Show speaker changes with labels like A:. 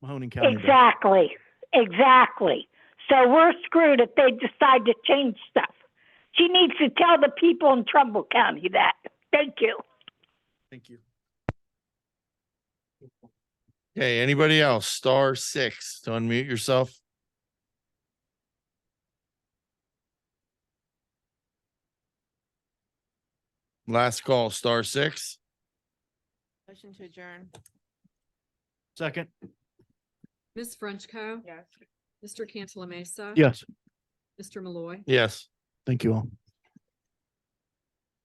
A: Mahoning County. does.
B: Exactly, exactly. So we're screwed if they decide to change stuff. She needs to tell the people in Trumbull County that. Thank you.
A: Thank you.
C: Okay, anybody else? Star six to unmute yourself. Last call, star six.
D: Motion to adjourn.
A: Second,
E: Ms. Frenchco.
D: Yes.
E: Mr. Cantala Mesa.
A: yes,
E: Mr. Malloy.
C: Yes.
A: thank you all.